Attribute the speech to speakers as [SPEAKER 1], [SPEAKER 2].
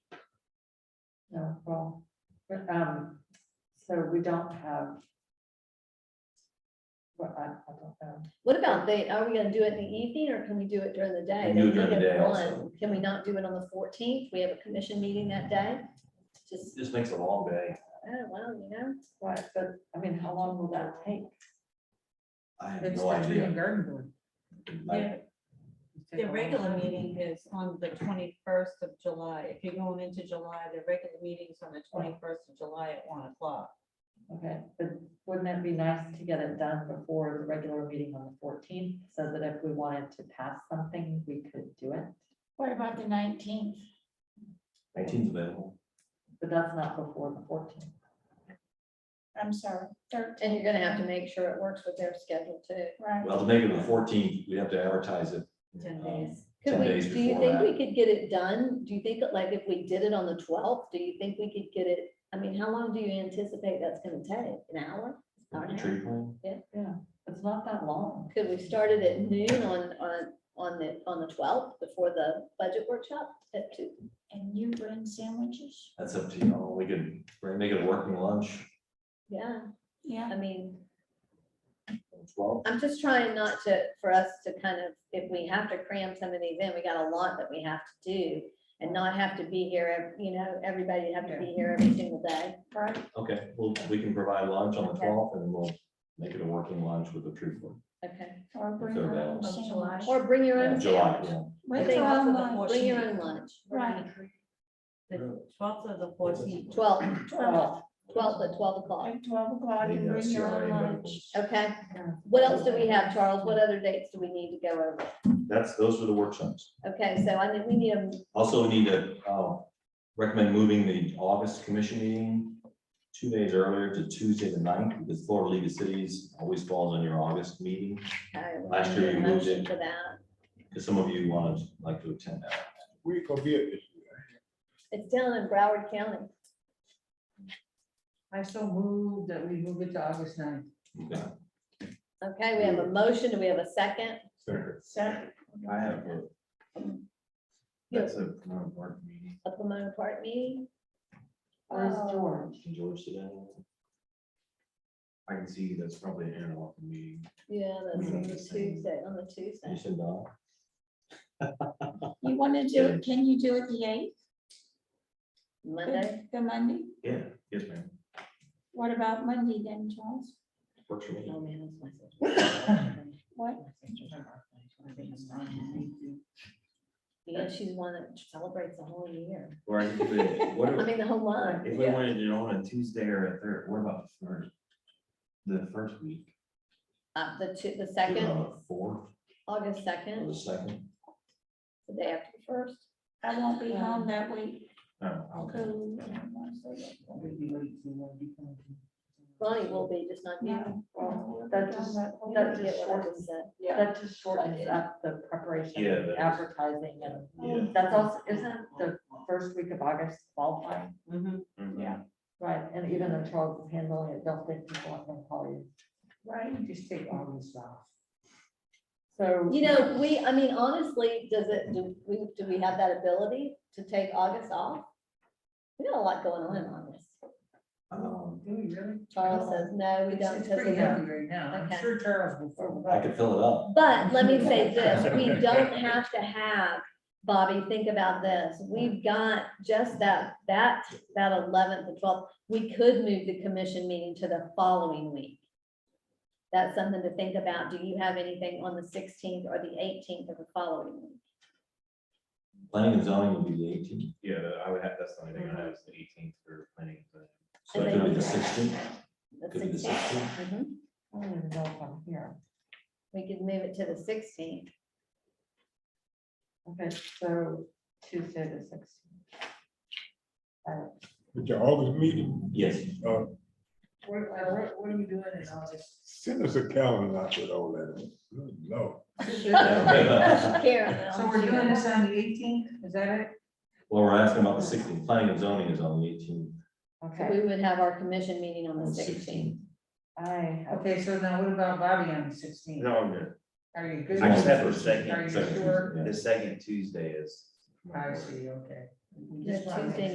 [SPEAKER 1] Yeah, well, but, um, so we don't have. Well, I, I don't know.
[SPEAKER 2] What about they, are we gonna do it in the evening or can we do it during the day?
[SPEAKER 3] We do it
[SPEAKER 2] They
[SPEAKER 3] during
[SPEAKER 2] meet
[SPEAKER 3] the
[SPEAKER 2] at
[SPEAKER 3] day also.
[SPEAKER 2] one. Can we not do it on the fourteenth? We have a commission meeting that day. Just,
[SPEAKER 3] This makes a long day.
[SPEAKER 2] oh, well, you know,
[SPEAKER 1] Right, but, I mean, how long will that take?
[SPEAKER 3] I have
[SPEAKER 4] It's
[SPEAKER 3] no
[SPEAKER 4] the tree
[SPEAKER 3] idea.
[SPEAKER 4] and garden board.
[SPEAKER 3] I-
[SPEAKER 5] The regular meeting is on the twenty-first of July. If you're going into July, the regular meeting's on the twenty-first of July at one o'clock.
[SPEAKER 1] Okay, but wouldn't it be nice to get it done before the regular meeting on the fourteenth, so that if we wanted to pass something, we could do it?
[SPEAKER 6] What about the nineteenth?
[SPEAKER 3] Nineteen's available.
[SPEAKER 1] But that's not before the fourteenth.
[SPEAKER 6] I'm sorry, thirteenth.
[SPEAKER 2] and you're gonna have to make sure it works with their schedule too.
[SPEAKER 6] Right.
[SPEAKER 3] Well, to make it the fourteenth, we have to advertise it.
[SPEAKER 5] Ten
[SPEAKER 3] um,
[SPEAKER 5] days.
[SPEAKER 2] Could
[SPEAKER 3] 10
[SPEAKER 2] we,
[SPEAKER 3] days
[SPEAKER 2] do you
[SPEAKER 3] before
[SPEAKER 2] think we
[SPEAKER 3] that.
[SPEAKER 2] could get it done? Do you think, that, like, if we did it on the twelfth, do you think we could get it? I mean, how long do you anticipate that's gonna take? An hour? Hour and a half?
[SPEAKER 3] Tree plan.
[SPEAKER 1] Yeah, it's not that long.
[SPEAKER 2] Could we start it at noon on, on, on the, on the twelfth before the budget workshop at two?
[SPEAKER 6] And you bring sandwiches?
[SPEAKER 3] That's up to you all. We could we're gonna make it a working lunch.
[SPEAKER 2] Yeah,
[SPEAKER 6] Yeah.
[SPEAKER 2] I mean,
[SPEAKER 3] on 12.
[SPEAKER 2] I'm just trying not to, for us to kind of, if we have to cram some of these in, we got a lot that we have to do and not have to be here, ev- you know, everybody have to be here every single day.
[SPEAKER 6] Right.
[SPEAKER 3] Okay, well, we can provide lunch on the
[SPEAKER 2] Okay.
[SPEAKER 3] twelfth and then we'll make it a working lunch with the tree plan.
[SPEAKER 2] Okay.
[SPEAKER 6] Or bring
[SPEAKER 3] Third
[SPEAKER 6] your
[SPEAKER 3] day
[SPEAKER 6] own
[SPEAKER 5] of July.
[SPEAKER 6] sandwich.
[SPEAKER 2] Or bring your own
[SPEAKER 3] July,
[SPEAKER 2] sandwich.
[SPEAKER 3] yeah.
[SPEAKER 2] I
[SPEAKER 6] Bring
[SPEAKER 2] think
[SPEAKER 6] your
[SPEAKER 5] that's
[SPEAKER 6] own
[SPEAKER 5] what the
[SPEAKER 6] lunch.
[SPEAKER 2] Bring your own lunch.
[SPEAKER 6] Right,
[SPEAKER 5] The twelfth or the fourteenth.
[SPEAKER 2] Twelve,
[SPEAKER 6] twelve,
[SPEAKER 2] twelve at twelve o'clock.
[SPEAKER 6] like twelve o'clock
[SPEAKER 3] Maybe
[SPEAKER 6] and
[SPEAKER 3] that's
[SPEAKER 6] bring your
[SPEAKER 3] CRA
[SPEAKER 6] own
[SPEAKER 3] medical.
[SPEAKER 6] lunch.
[SPEAKER 2] Okay. What else do we have, Charles? What other dates do we need to go over?
[SPEAKER 3] That's, those are the workshops.
[SPEAKER 2] Okay, so I think we need a,
[SPEAKER 3] Also we need to uh, recommend moving the August commission meeting two days earlier to Tuesday the 9th because Florida League of Cities always falls on your August meeting.
[SPEAKER 2] I
[SPEAKER 3] Last year
[SPEAKER 2] need a
[SPEAKER 3] you moved
[SPEAKER 2] uh, motion
[SPEAKER 3] it.
[SPEAKER 2] for that.
[SPEAKER 3] Because some of you wanted, like to attend that.
[SPEAKER 7] We could be at this.
[SPEAKER 2] It's down in Broward County.
[SPEAKER 4] I so moved that we move it to August ninth.
[SPEAKER 3] Okay.
[SPEAKER 2] Okay, we have
[SPEAKER 3] Mm.
[SPEAKER 2] a motion. Do we have a second?
[SPEAKER 6] Second.
[SPEAKER 8] I have a. um, That's a Pomona Park meeting.
[SPEAKER 2] A Pomona Park meeting?
[SPEAKER 1] Where's
[SPEAKER 6] Oh.
[SPEAKER 1] George?
[SPEAKER 3] Can George sit down?
[SPEAKER 8] I can see that's probably an interlock meeting.
[SPEAKER 2] Yeah, that's on the
[SPEAKER 8] Mhm.
[SPEAKER 4] Mm-hmm.
[SPEAKER 2] Tuesday, on the
[SPEAKER 3] You
[SPEAKER 2] Tuesday.
[SPEAKER 3] said no.
[SPEAKER 6] You want to do it, can you do it the eighth,
[SPEAKER 2] Monday,
[SPEAKER 6] the the Monday?
[SPEAKER 8] Yeah, yes, ma'am.
[SPEAKER 6] What about Monday then, Charles?
[SPEAKER 3] Works for me.
[SPEAKER 1] Oh, man, that's my sister.
[SPEAKER 6] What?
[SPEAKER 2] yeah, she's one that celebrates the whole year.
[SPEAKER 8] Or I could do it- what
[SPEAKER 2] I
[SPEAKER 8] if,
[SPEAKER 2] mean, the whole month.
[SPEAKER 8] if we wanted to do it on a Tuesday or a third, what about the first? The first week?
[SPEAKER 2] Uh, the two, the
[SPEAKER 3] Do it
[SPEAKER 2] second,
[SPEAKER 8] Uh,
[SPEAKER 3] on the Fourth
[SPEAKER 2] August
[SPEAKER 3] or the
[SPEAKER 2] second,
[SPEAKER 3] second.
[SPEAKER 2] the day after the first.
[SPEAKER 6] I won't be home that week.
[SPEAKER 8] Oh, okay.
[SPEAKER 6] Ooh, I don't wanna say that.
[SPEAKER 2] Ronnie will be, just not you.
[SPEAKER 6] No.
[SPEAKER 1] Well,
[SPEAKER 6] We'll be
[SPEAKER 1] that
[SPEAKER 6] gone
[SPEAKER 1] just-
[SPEAKER 6] that week.
[SPEAKER 2] You
[SPEAKER 1] That
[SPEAKER 2] get
[SPEAKER 1] just
[SPEAKER 2] what I
[SPEAKER 1] shortens
[SPEAKER 2] just said.
[SPEAKER 1] That just shortens up the preparation,
[SPEAKER 3] Yeah,
[SPEAKER 1] and
[SPEAKER 3] that is-
[SPEAKER 1] advertising and
[SPEAKER 3] Yeah.
[SPEAKER 1] that's also, isn't the first week of August qualifying?
[SPEAKER 5] Mm-hmm.
[SPEAKER 8] Mhm.
[SPEAKER 1] Right, and even though Charles is handling it, don't think people aren't gonna call you.
[SPEAKER 4] Right, just take August off.
[SPEAKER 1] So,
[SPEAKER 2] You know, we, I mean, honestly, does it, do we, do we have that ability to take August off? We got a lot going on in August.
[SPEAKER 3] Um,
[SPEAKER 8] Mm-hmm.
[SPEAKER 4] Oh, Do we really?
[SPEAKER 2] Charles says, no, we
[SPEAKER 4] It's
[SPEAKER 2] don't.
[SPEAKER 4] it's
[SPEAKER 2] because we
[SPEAKER 4] pretty
[SPEAKER 2] don't."
[SPEAKER 4] heavy right now. I'm
[SPEAKER 2] Okay.
[SPEAKER 4] sure Charles will. fill it
[SPEAKER 3] I
[SPEAKER 4] up.
[SPEAKER 3] could fill it up.
[SPEAKER 2] But let me say this, we don't have to have, Bobby, think about this, we've got just that, that, that eleventh and twelfth. We could move the commission meeting to the following week. That's something to think about. Do you have anything on the sixteenth or the eighteenth of the following week?
[SPEAKER 3] Planning and zoning would be the eighteenth.
[SPEAKER 8] Yeah, I would have, that's the only thing I have is the eighteenth for planning. but-
[SPEAKER 3] So it could be the sixteenth.
[SPEAKER 2] The
[SPEAKER 3] Could be the
[SPEAKER 2] 16th?
[SPEAKER 3] 16th.
[SPEAKER 2] Mhm.
[SPEAKER 1] I don't even know if I'm here.
[SPEAKER 2] We could move it to the sixteenth.
[SPEAKER 1] Okay, so Tuesday the sixteenth.
[SPEAKER 7] With your August meeting,
[SPEAKER 3] Yes.
[SPEAKER 7] uh,
[SPEAKER 4] What, uh, what- what are we doing in August?
[SPEAKER 7] send us a calendar out with all that. Good Lord.
[SPEAKER 3] Yeah.
[SPEAKER 2] Karen.
[SPEAKER 4] So we're doing this on the eighteenth, is that it?
[SPEAKER 3] Well, we're asking about the sixteenth. Planning and zoning is on the eighteenth.
[SPEAKER 2] So
[SPEAKER 1] Okay,
[SPEAKER 2] We would have our commission meeting on the sixteenth.
[SPEAKER 1] I have,
[SPEAKER 4] Okay, so now what about Bobby on the sixteenth?
[SPEAKER 8] No, I'm good.
[SPEAKER 4] Are you good?
[SPEAKER 3] I just have
[SPEAKER 8] a second.
[SPEAKER 4] Are you sure?
[SPEAKER 8] The second Tuesday is.
[SPEAKER 4] I see, okay. We just wanted to-
[SPEAKER 2] Tuesday